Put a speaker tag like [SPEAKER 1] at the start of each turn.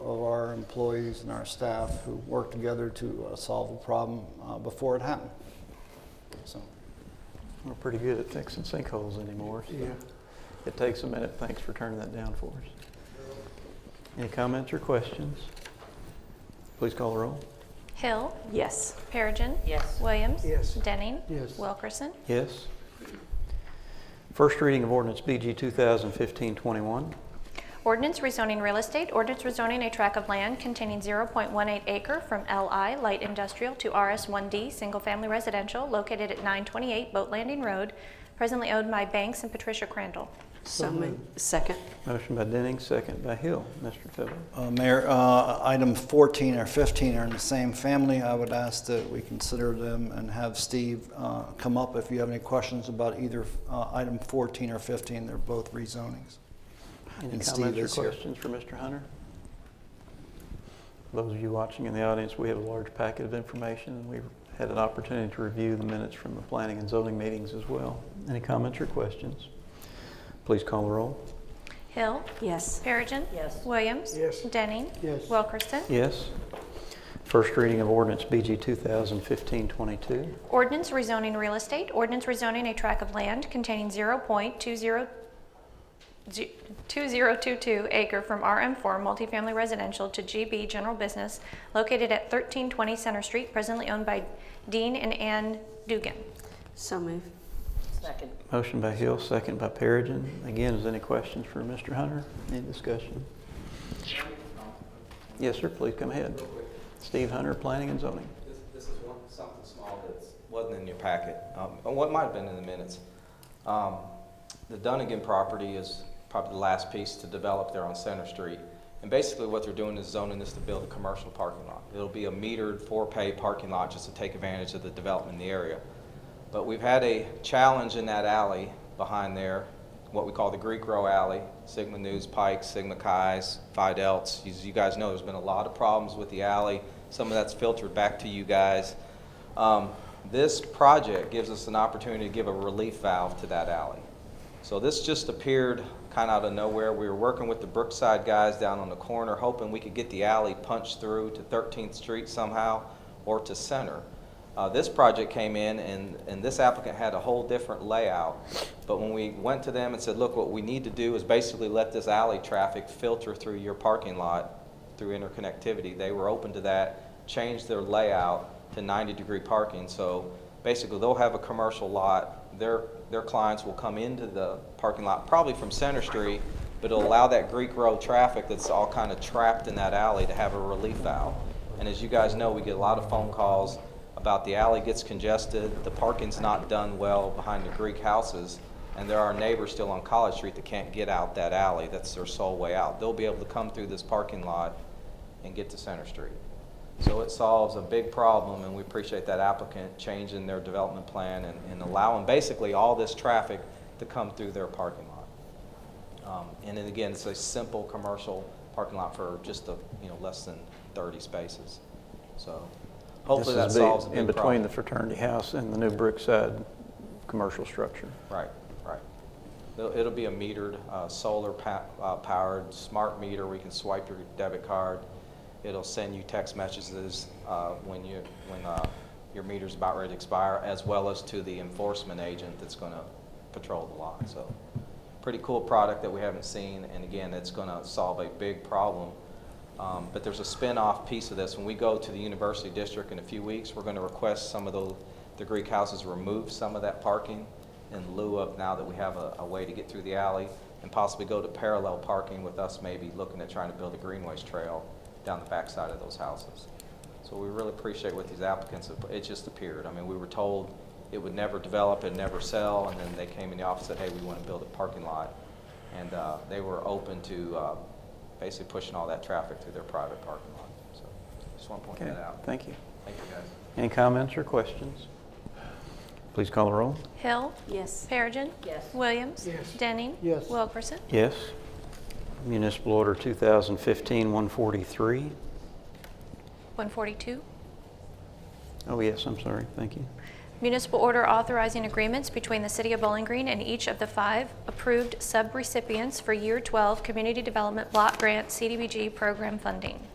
[SPEAKER 1] employees and our staff who worked together to uh, solve the problem uh, before it happened. So,
[SPEAKER 2] We're pretty good at fixing sinkholes anymore. so It takes a minute. Thanks for turning that down for us. Any comments or questions? Please call the roll.
[SPEAKER 3] Hill,
[SPEAKER 4] Yes.
[SPEAKER 3] Perigin.
[SPEAKER 5] Yes.
[SPEAKER 3] Williams.
[SPEAKER 6] Yes.
[SPEAKER 3] Denning.
[SPEAKER 6] Yes.
[SPEAKER 3] Wilkerson.
[SPEAKER 2] Yes. First reading of ordinance BG 2015-21.
[SPEAKER 3] Ordinance rezoning real estate. Ordinance rezoning a tract of land containing 0.18 acre from LI Light Industrial to RS1D Single Family Residential located at 928 Boat Landing Road, presently owned by Banks and Patricia Crandall.
[SPEAKER 4] So moved. Second.
[SPEAKER 2] Motion by Denning, second by Hill. Mr. Fiddler.
[SPEAKER 1] uh, Mayor, uh, item 14 or 15 are in the same family. I would ask that we consider them and have Steve uh, come up if you have any questions about either uh, item 14 or 15. They're both rezonings.
[SPEAKER 2] Any
[SPEAKER 1] And Steve
[SPEAKER 2] comments or
[SPEAKER 1] is here.
[SPEAKER 2] questions for Mr. Hunter? Those of you watching in the audience, we have a large packet of information, and we've had an opportunity to review the minutes from the planning and zoning meetings as well. Any comments or questions? Please call the roll.
[SPEAKER 3] Hill,
[SPEAKER 4] Yes.
[SPEAKER 3] Perigin.
[SPEAKER 5] Yes.
[SPEAKER 3] Williams.
[SPEAKER 6] Yes.
[SPEAKER 3] Denning.
[SPEAKER 6] Yes.
[SPEAKER 3] Wilkerson.
[SPEAKER 2] Yes. First reading of ordinance BG 2015-22.
[SPEAKER 3] Ordinance rezoning real estate. Ordinance rezoning a tract of land containing 0.20 G- 2022 acre from RM4 multifamily residential to GB general business located at 1320 Center Street, presently owned by Dean and Ann Dugan.
[SPEAKER 4] So moved.
[SPEAKER 5] Second.
[SPEAKER 2] Motion by Hill, second by Perigin. Again, is there any questions for Mr. Hunter? Any discussion? Yes, sir, please come ahead. Steve Hunter, Planning and Zoning.
[SPEAKER 7] This, this is one, something small that wasn't in your packet, um, and what might have been in the minutes. Um, the Dunnigan property is probably the last piece to develop there on Center Street. And basically what they're doing is zoning this to build a commercial parking lot. It'll be a metered, for-pay parking lot just to take advantage of the development in the area. But we've had a challenge in that alley behind there, what we call the Greek Row Alley, Sigma News Pike, Sigma Chi's, Phi Delts. As you guys know, there's been a lot of problems with the alley. Some of that's filtered back to you guys. Um, This project gives us an opportunity to give a relief valve to that alley. So this just appeared kind of out of nowhere. We were working with the Brookside guys down on the corner, hoping we could get the alley punched through to 13th Street somehow or to Center. Uh, This project came in, and, and this applicant had a whole different layout. But when we went to them and said, look, what we need to do is basically let this alley traffic filter through your parking lot through interconnectivity, they were open to that, changed their layout to 90-degree parking. So basically, they'll have a commercial lot, their, their clients will come into the parking lot, probably from Center Street, but it'll allow that Greek Road traffic that's all kind of trapped in that alley to have a relief valve. And as you guys know, we get a lot of phone calls about the alley gets congested, the parking's not done well behind the Greek houses, and there are neighbors still on College Street that can't get out that alley, that's their sole way out. They'll be able to come through this parking lot and get to Center Street. So it solves a big problem, and we appreciate that applicant changing their development plan and, and allowing basically all this traffic to come through their parking lot. Um, And then again, it's a simple commercial parking lot for just a, you know, less than 30 spaces. So hopefully that
[SPEAKER 2] This is
[SPEAKER 7] solves a
[SPEAKER 2] In
[SPEAKER 7] big
[SPEAKER 2] between
[SPEAKER 7] problem.
[SPEAKER 2] the fraternity house and the new Brookside commercial structure.
[SPEAKER 7] Right, right. It'll, it'll be a metered, uh, solar pa- uh, powered, smart meter, we can swipe your debit card. It'll send you text messages, uh, when you, when, uh, your meter's about ready to expire, as well as to the enforcement agent that's gonna patrol the lot, so. Pretty cool product that we haven't seen, and again, it's gonna solve a big problem. Um, But there's a spin-off piece of this. When we go to the university district in a few weeks, we're going to request some of the, the Greek houses remove some of that parking in lieu of now that we have a, a way to get through the alley and possibly go to parallel parking with us maybe looking at trying to build a greenways trail down the backside of those houses. So we really appreciate what these applicants have, it just appeared. I mean, we were told it would never develop and never sell, and then they came in the office and said, hey, we want to build a parking lot. And uh, they were open to uh, basically pushing all that traffic through their private parking lot. So just want to point
[SPEAKER 2] Okay,
[SPEAKER 7] that out.
[SPEAKER 2] thank you.
[SPEAKER 7] Thank you, guys.
[SPEAKER 2] Any comments or questions? Please call the roll.
[SPEAKER 3] Hill,
[SPEAKER 4] Yes.
[SPEAKER 3] Perigin.
[SPEAKER 5] Yes.
[SPEAKER 3] Williams.
[SPEAKER 6] Yes.
[SPEAKER 3] Denning.
[SPEAKER 6] Yes.
[SPEAKER 3] Wilkerson.
[SPEAKER 2] Yes. Municipal Order 2015-143.
[SPEAKER 3] 142.
[SPEAKER 2] Oh, yes, I'm sorry, thank you.
[SPEAKER 3] Municipal order authorizing agreements between the City of Bowling Green and each of the five approved subrecipients for Year 12 Community Development Block Grant CDBG program funding.